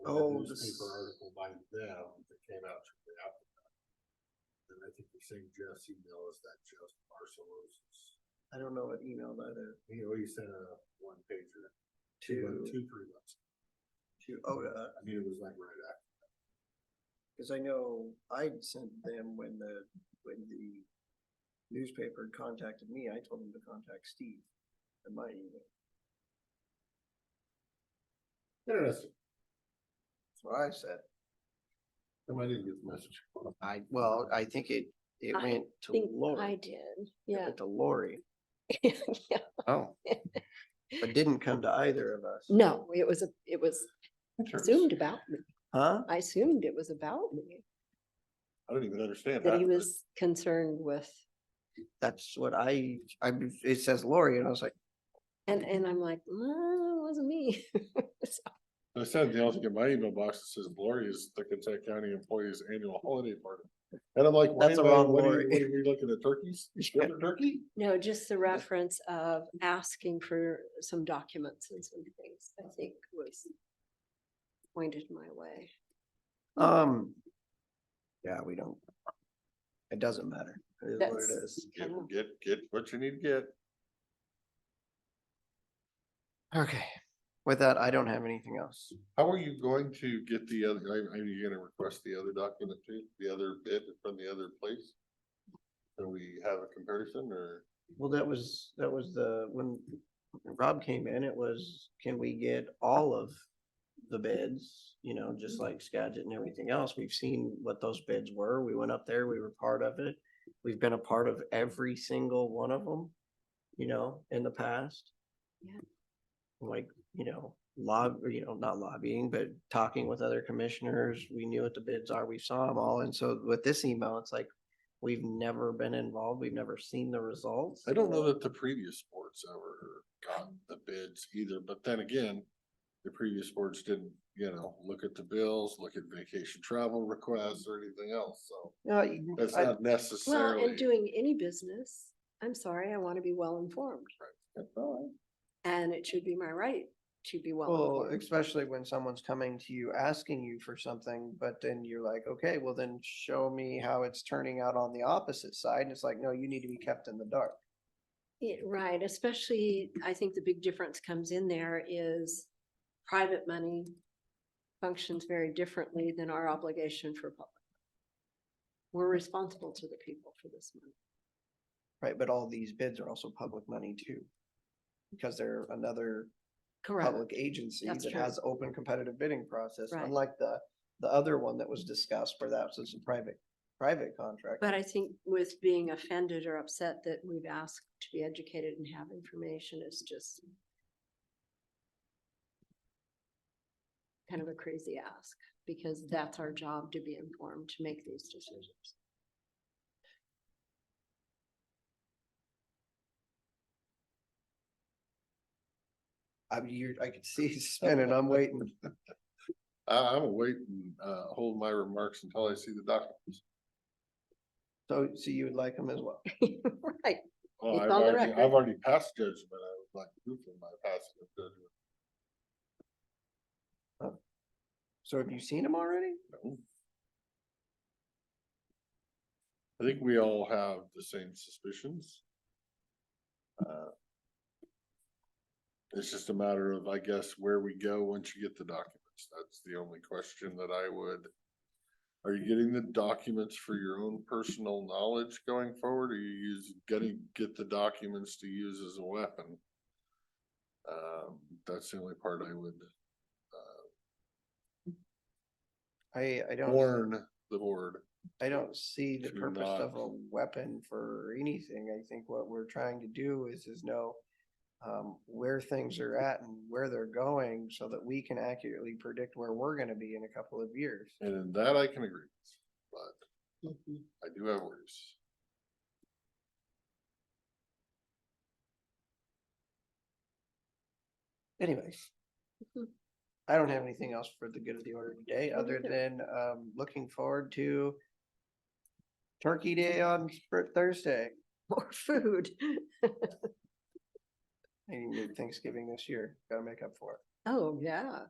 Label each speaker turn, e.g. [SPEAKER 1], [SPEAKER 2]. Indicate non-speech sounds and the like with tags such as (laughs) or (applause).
[SPEAKER 1] a
[SPEAKER 2] Oh, this-
[SPEAKER 1] Newspaper article by them that came out from the applicant. And I think the same Jeff's email is that Jeff Barcelos.
[SPEAKER 2] I don't know what email either,
[SPEAKER 1] He always sent a one pager, two,
[SPEAKER 2] to,
[SPEAKER 1] two, three months.
[SPEAKER 2] to ODA,
[SPEAKER 1] I mean, it was like right after.
[SPEAKER 2] cause I know I sent them when the, when the newspaper contacted me, I told them to contact Steve at my email.
[SPEAKER 1] Interesting.
[SPEAKER 2] That's what I said.
[SPEAKER 1] Somebody didn't get the message.
[SPEAKER 2] I, well, I think it, it
[SPEAKER 3] I
[SPEAKER 2] went
[SPEAKER 3] I
[SPEAKER 2] to
[SPEAKER 3] think I
[SPEAKER 2] Lori.
[SPEAKER 3] did,
[SPEAKER 2] It
[SPEAKER 3] yeah.
[SPEAKER 2] went To Lori,
[SPEAKER 3] (laughs) Yeah.
[SPEAKER 2] oh. But didn't come to either of us.
[SPEAKER 3] No, it was, a. it was
[SPEAKER 1] Interesting.
[SPEAKER 3] assumed about me.
[SPEAKER 2] Huh?
[SPEAKER 3] I assumed it was about me,
[SPEAKER 1] I don't even understand.
[SPEAKER 3] that he
[SPEAKER 1] but-
[SPEAKER 3] was concerned with.
[SPEAKER 2] That's what I, I, it says Lori and I was like,
[SPEAKER 3] And, and I'm like, no, it wasn't me. (laughs) So,
[SPEAKER 1] I said, they also get my email box that says Lori is the Kentucky County Employees Annual Holiday Party. And I'm like, wait
[SPEAKER 2] That's
[SPEAKER 1] a
[SPEAKER 2] the
[SPEAKER 1] minute,
[SPEAKER 2] wrong
[SPEAKER 1] what are
[SPEAKER 2] Lori.
[SPEAKER 1] you, what are we looking at turkeys? You have a turkey?
[SPEAKER 3] No, just the reference of asking for some documents and some things, I think was pointed my way.
[SPEAKER 2] um. Yeah, we don't. It doesn't matter. It is what
[SPEAKER 3] That's-
[SPEAKER 2] it is.
[SPEAKER 3] I know.
[SPEAKER 1] Get, get, get what you need to get.
[SPEAKER 2] Okay. With that, I don't have anything else.
[SPEAKER 1] How are you going to get the other, are, are you gonna request the other document too, the other bid from the other place? Do we have a comparison or?
[SPEAKER 2] Well, that was, that was the, when Rob came in, it was, can we get all of the bids? You know, just like Skagit and everything else. We've seen what those bids were. We went up there, we were part of it. We've been a part of every single one of them, you know, in the past.
[SPEAKER 3] Yeah.
[SPEAKER 2] Like, you know, lob, or, you know, not lobbying, but talking with other commissioners. We knew what the bids are. We saw them all. And so with this email, it's like, we've never been involved. We've never seen the results.
[SPEAKER 1] I don't know that the previous sports ever got the bids either, but then again, the previous sports didn't, you know, look at the bills, look at vacation travel requests or anything else, so
[SPEAKER 2] No, you-
[SPEAKER 1] that's
[SPEAKER 2] I-
[SPEAKER 1] not
[SPEAKER 3] Well,
[SPEAKER 1] necessarily.
[SPEAKER 3] and doing any business, I'm sorry, I want to be well informed and it should be my right to be well
[SPEAKER 2] Well,
[SPEAKER 3] informed.
[SPEAKER 2] especially when someone's coming to you asking you for something, but then you're like, okay, well then show me how it's turning out on the opposite side. And it's like, no, you need to be kept in the dark.
[SPEAKER 3] Yeah, right, especially, I think the big difference comes in there is private money functions very differently than our obligation for public. We're responsible to the people for this money.
[SPEAKER 2] Right, but all these bids are also public money too. Because they're another
[SPEAKER 3] Correct.
[SPEAKER 2] public agency
[SPEAKER 3] That's
[SPEAKER 2] that
[SPEAKER 3] true.
[SPEAKER 2] has open competitive bidding process,
[SPEAKER 3] Right.
[SPEAKER 2] unlike the, the other one that was discussed where that was just a private, private contract.
[SPEAKER 3] But I think with being offended or upset that we've asked to be educated and have information is just kind of a crazy ask, because that's our job to be informed, to make these decisions.
[SPEAKER 2] I mean, you're, I could see
[SPEAKER 3] (laughs)
[SPEAKER 2] you spinning, I'm waiting.
[SPEAKER 1] I, I'm gonna wait and, uh, hold my remarks until I see the documents.
[SPEAKER 2] So, so you would like them as well?
[SPEAKER 3] Right,
[SPEAKER 1] Oh,
[SPEAKER 3] It's
[SPEAKER 1] I've
[SPEAKER 3] on the
[SPEAKER 1] already,
[SPEAKER 3] record.
[SPEAKER 1] I've already passed judgment, I was like, proofing my past judgment.
[SPEAKER 2] So have you seen them already?
[SPEAKER 1] No. I think we all have the same suspicions. Uh, It's just a matter of, I guess, where we go once you get the documents. That's the only question that I would. Are you getting the documents for your own personal knowledge going forward? or Are you use, gonna get the documents to use as a weapon? Um, that's the only part I would
[SPEAKER 2] I, I don't,
[SPEAKER 1] warn the board.
[SPEAKER 2] I don't see the
[SPEAKER 1] to
[SPEAKER 2] purpose
[SPEAKER 1] not-
[SPEAKER 2] of a weapon for anything. I think what we're trying to do is, is know um, where things are at and where they're going so that we can accurately predict where we're gonna be in a couple of years.
[SPEAKER 1] And in that I can agree, with, but I do have worries.
[SPEAKER 2] Anyways.
[SPEAKER 3] Mhm.
[SPEAKER 2] I don't have anything else for the good of the order today,
[SPEAKER 3] Me
[SPEAKER 2] other
[SPEAKER 3] neither.
[SPEAKER 2] than, um, looking forward to Turkey Day on Spr- Thursday.
[SPEAKER 3] (laughs) more food.
[SPEAKER 2] I didn't do Thanksgiving this year. Gotta make up for it.
[SPEAKER 3] Oh, yeah.